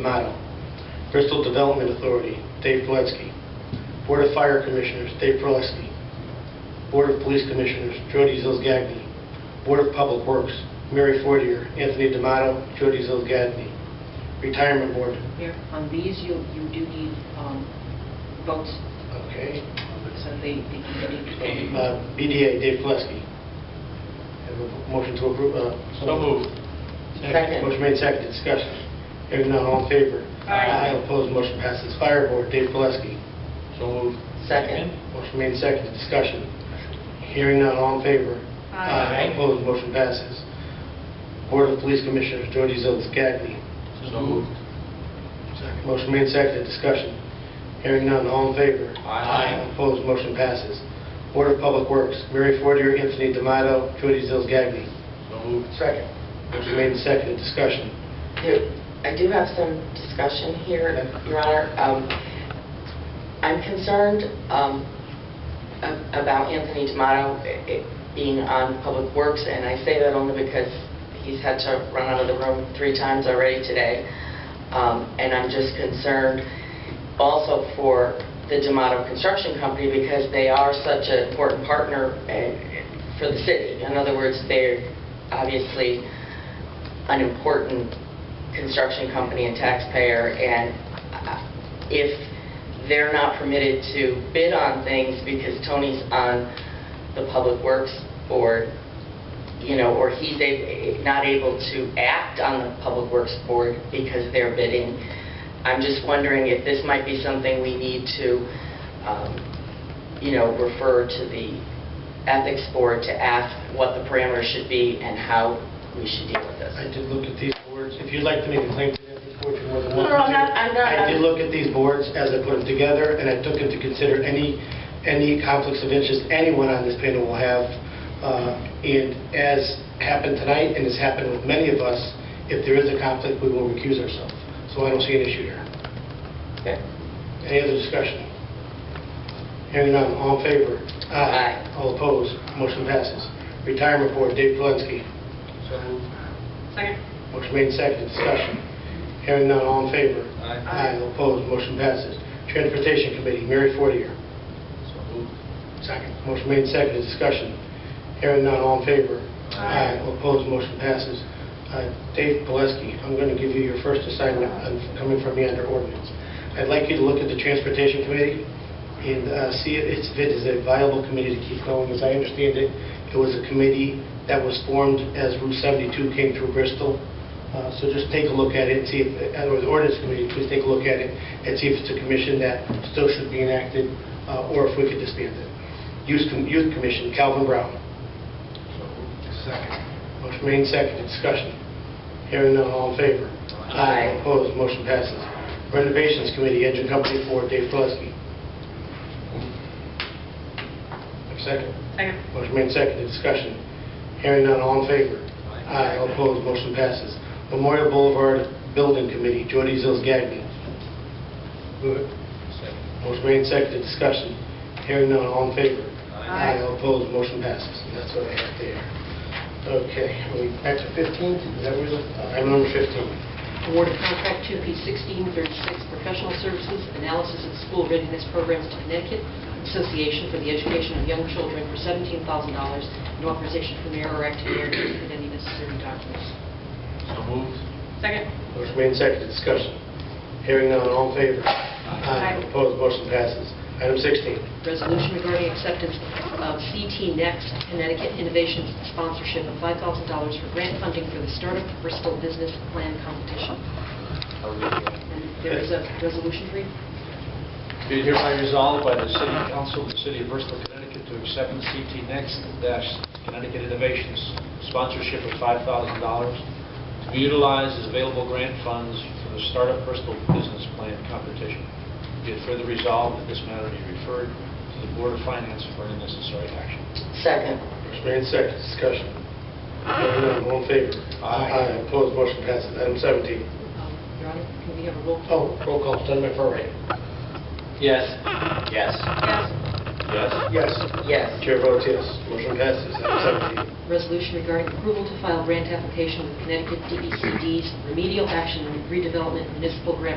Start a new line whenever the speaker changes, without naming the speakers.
Motto. Bristol Development Authority, Dave Peletsky. Board of Fire Commissioners, Dave Perleski. Board of Police Commissioners, Jody Zilsgadney. Board of Public Works, Mary Fortier, Anthony D'Amato, Jody Zilsgadney. Retirement Board,
Mayor, on these, you, you do need um, votes,
okay.
so they, they can be...
Uh, BDA, Dave Pelleski. Have a motion to approve. uh,
So moved.
Motion made, second, discussion. Hearing none, all in favor?
Aye.
Opposed, motion passes. Fire Board, Dave Pelleski.
So moved.
Second.
Motion made, second, discussion. Hearing none, all in favor?
Aye.
Opposed, motion passes. Board of Police Commissioners, Jody Zills-Gagney.
So moved.
Motion made, second, discussion. Hearing none, all in favor?
Aye.
Opposed, motion passes. Board of Public Works, Mary Fortier, Anthony D'Amato, Jody Zills-Gagney.
So moved.
Second.
Motion made, second, discussion.
There- I do have some discussion here, Your Honor. Um, I'm concerned um, a- about Anthony Tomato being on Public Works, and I say that only because he's had to run out of the room three times already today. Um, And I'm just concerned also for the D'Amato Construction Company, because they are such an important partner eh, for the city. In other words, they're obviously an important construction company and taxpayer, and uh, if they're not permitted to bid on things because Tony's on the Public Works Board, you know, or he's a- not able to act on the Public Works Board because they're bidding, I'm just wondering if this might be something we need to, um, you know, refer to the Ethics Board to ask what the parameters should be and how we should deal with this.
I did look at these boards. If you'd like to make a claim to them before you're more than
No,
welcome to.
no, I'm not- I'm
I
not-
did look at these boards as I put them together, and I took into consider any, any conflicts of interest anyone on this panel will have. Uh, And as happened tonight, and has happened with many of us, if there is a conflict, we will recuse ourselves. So I don't see an issue here.
Okay.
Any other discussion? Hearing none, all in favor?
Aye.
All opposed, motion passes. Retirement Board, Dave Polensky. So moved.
Second.
Motion made second, discussion. Hearing none, all in favor?
Aye.
All opposed, motion passes. Transportation Committee, Mary Fortier.
So moved.
Second. Motion made second, discussion. Hearing none, all in favor? Aye. All opposed, motion passes. Uh, Dave Pelesky, I'm going to give you your first assignment uh, coming from me under ordinance. I'd like you to look at the Transportation Committee and uh, see if it's- if it is a viable committee to keep going. As I understand it, it was a committee that was formed as Route 72 came through Bristol. Uh, So just take a look at it, see, if- uh, or the ordinance committee, please take a look at it and see if it's a commission that still should be enacted uh, or if we could disband it. Youth Com- Youth Commission, Calvin Brown. Second. Motion made second, discussion. Hearing none, all in favor?
Aye.
Opposed, motion passes. Renovations Committee, Engine Company 4, Dave Gillespie. Second.
Second.
Motion made second, discussion. Hearing none, all in favor?
Aye.
All opposed, motion passes. Memorial Boulevard Building Committee, Jody Zills-Gagnon. Move it.
Second.
Motion made second, discussion. Hearing none, all in favor?
Aye.
All opposed, motion passes. And That's what I have there. Okay, are we back to 15? Is that where we're- uh, Item number 15.
Award of contract 2P1636, professional services, analysis of school readiness programs to Connecticut Association for the Education of Young Children for $17,000, and authorization for mayor or acting mayor to execute any necessary documents.
So moved.
Second.
Motion made second, discussion. Hearing none, all in favor? Aye. Opposed, motion passes. Item 16.
Resolution regarding acceptance of CT Next Connecticut Innovations sponsorship of $5,000 for grant funding for the Startup Bristol Business Plan Competition. And There is a resolution for you.
Be it hereby resolved by the City Council of the City of Bristol, Connecticut, to accept CT Next dash Connecticut Innovations sponsorship of $5,000 to be utilized as available grant funds for the Startup Bristol Business Plan Competition. Be it further resolved that this matter be referred to the Board of Finance for any necessary action.
Second.
Motion made second, discussion. Hearing none, all in favor?
Aye.
Opposed, motion passes. Item 17.
Um, Your Honor, can we have a roll call?
Oh, roll call, Senator McFerray.
Yes. Yes.
Yes.
Yes.
Yes.
Yes.
Chair votes yes. Motion passes. Item 17.
Resolution regarding approval E to file grant application with Connecticut DECD's Remedial Action Redevelopment Municipal Grant